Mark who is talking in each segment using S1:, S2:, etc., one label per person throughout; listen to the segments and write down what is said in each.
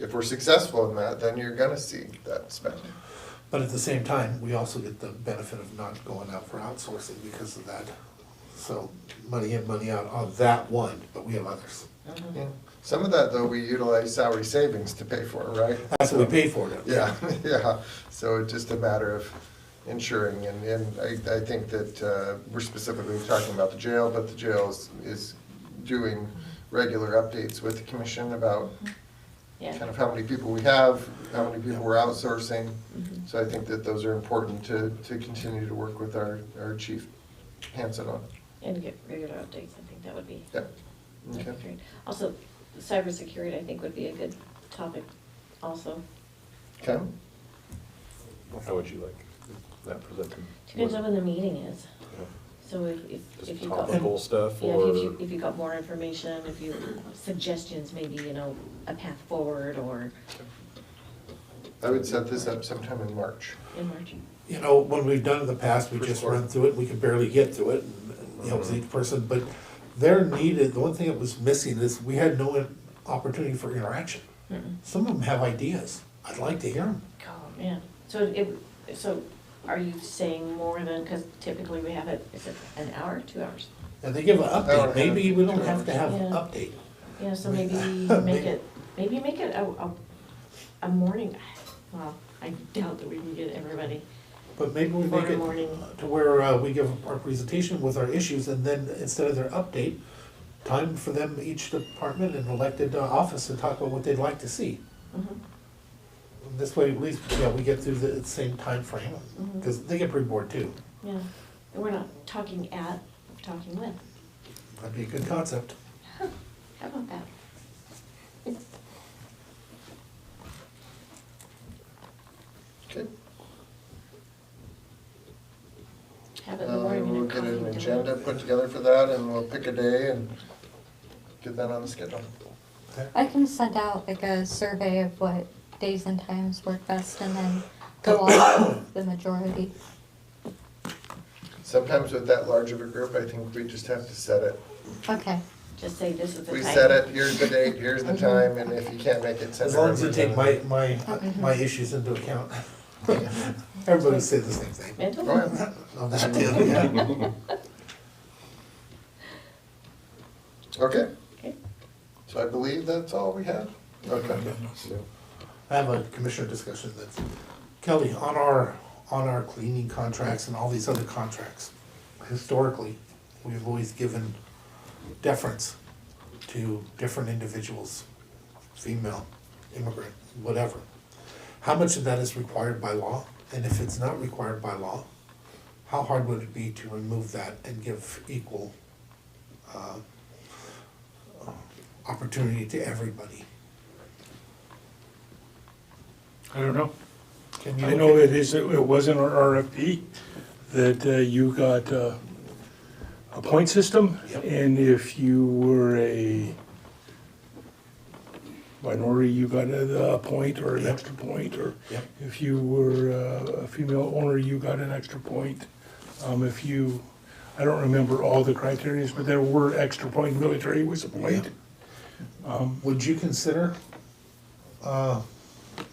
S1: if we're successful in that, then you're gonna see that spend.
S2: But at the same time, we also get the benefit of not going out for outsourcing because of that. So money in, money out on that one, but we have others.
S1: Yeah. Some of that, though, we utilize salary savings to pay for, right?
S2: That's what we pay for now.
S1: Yeah, yeah, so it's just a matter of ensuring, and, and I, I think that, uh, we're specifically talking about the jail, but the jail is, is doing regular updates with the commission about kind
S3: Yeah,
S1: of how many people we have, how many people we're outsourcing. So I think that those are important to, to continue to work with our, our chief Hanson on.
S3: and get regular updates, I think that would be,
S1: Yep.
S3: that'd be
S1: Okay.
S3: great. Also, cybersecurity, I think would be a good topic also.
S1: Okay.
S4: How would you like that presented?
S3: Depends on when the meeting is,
S4: Yeah.
S3: so if, if, if
S4: Just
S3: you got.
S4: topical stuff
S3: Yeah,
S4: or?
S3: if you, if you got more information, if you, suggestions, maybe, you know, a path forward or
S1: I would set this up sometime in March.
S3: in March.
S2: You know, when we've done in the past, we
S1: First
S2: just
S1: quarter.
S2: run through it, we could barely get to it, and and it helps each person, but they're needed, the one thing that was missing is we had no in- opportunity for interaction. Some of them have ideas, I'd like to hear them.
S3: Oh, man. So it, so are you saying more than, because typically we have it, is it an hour, two hours?
S2: And they give an
S1: Hour and a
S2: update,
S1: half,
S2: maybe we don't
S1: two
S2: have to
S1: hours.
S2: have an
S3: Yeah.
S2: update.
S3: Yeah, so maybe make it, maybe make it a, a, a morning, well, I doubt that we can get everybody.
S2: But maybe we
S3: For
S2: make it
S3: morning.
S2: to where uh, we give our presentation with our issues and then instead of their update, time for them, each department and elected uh, office to talk about what they'd like to see.
S3: Mhm.
S2: This way, at least, yeah, we get through the same timeframe,
S3: Mhm.
S2: because they get pretty bored too.
S3: Yeah, and we're not talking at, we're talking with.
S2: That'd be a good concept.
S3: How about that?
S1: Okay.
S3: Have it in the
S1: Uh,
S3: morning
S1: We'll
S3: and a
S1: get
S3: coffee.
S1: an
S3: dinner.
S1: agenda put together for that, and we'll pick a day and get that on the schedule.
S5: I can send out like a survey of what days and times work best and then go off of the majority.
S1: Sometimes with that large of a group, I think we just have to set it.
S5: Okay,
S3: Just say this is the time.
S1: We set it, here's the date, here's the time, and if you can't make it, send
S2: As
S1: a
S2: long as you take my,
S1: representative.
S2: my, my issues into account. Everybody say the same thing.
S3: Mental?
S1: Go ahead.
S2: On that too, yeah.
S1: Okay,
S3: Okay.
S1: so I believe that's all we have? Okay.
S2: I have a commissioner discussion that's, Kelly, on our, on our cleaning contracts and all these other contracts, historically, we've always given deference to different individuals, female, immigrant, whatever. How much of that is required by law? And if it's not required by law, how hard would it be to remove that and give equal, uh, opportunity to everybody?
S6: I don't know.
S2: Can you
S6: I
S2: look
S6: know
S2: at-
S6: it is, it was in our RFP that uh, you got uh, a point system.
S2: Yep.
S6: And if you were a minority, you got a a point or an
S2: Yep.
S6: extra point. Or
S2: Yep.
S6: if you were uh, a female owner, you got an extra point. Um, If you, I don't remember all the criterias, but there were extra point, military was a point.
S2: Would you consider uh,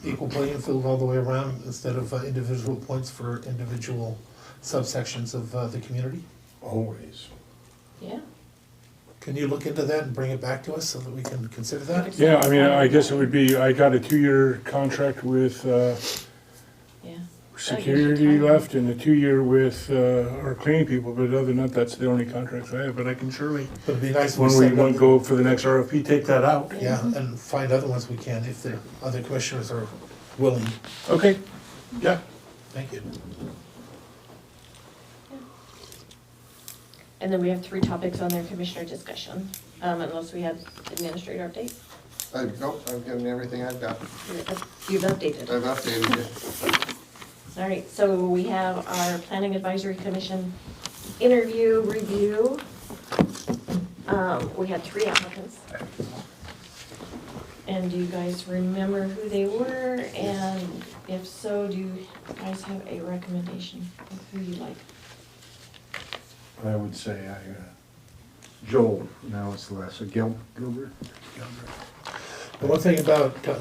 S2: equal playing field all the way around instead of uh, individual points for individual subsections of uh, the community?
S4: Always.
S3: Yeah.
S2: Can you look into that and bring it back to us so that we can consider that?
S6: Yeah, I mean, I guess it would be, I got a two-year contract with uh,
S3: Yeah.
S6: security left and a two-year with uh, our cleaning people, but other than that, that's the only contracts I have, but I can surely,
S2: But It'd be nice if we
S6: when we
S2: set it
S6: want
S2: up-
S6: to go for the next RFP, take that out.
S2: Yeah, and find other ones we can if the other commissioners are willing.
S6: Okay, yeah.
S2: Thank you.
S3: And then we have three topics on their commissioner discussion, um, unless we have administrator update.
S1: I, nope, I've given you everything I've got.
S3: You've updated.
S1: I've updated it.
S3: All right, so we have our Planning Advisory Commission interview review. Um, we had three applicants. And do you guys remember who they were? And if so, do you guys have a recommendation of who you like?
S7: I would say I, uh, Joel, now it's Lassa uh, Gil, Gilbert.
S2: The one thing about uh,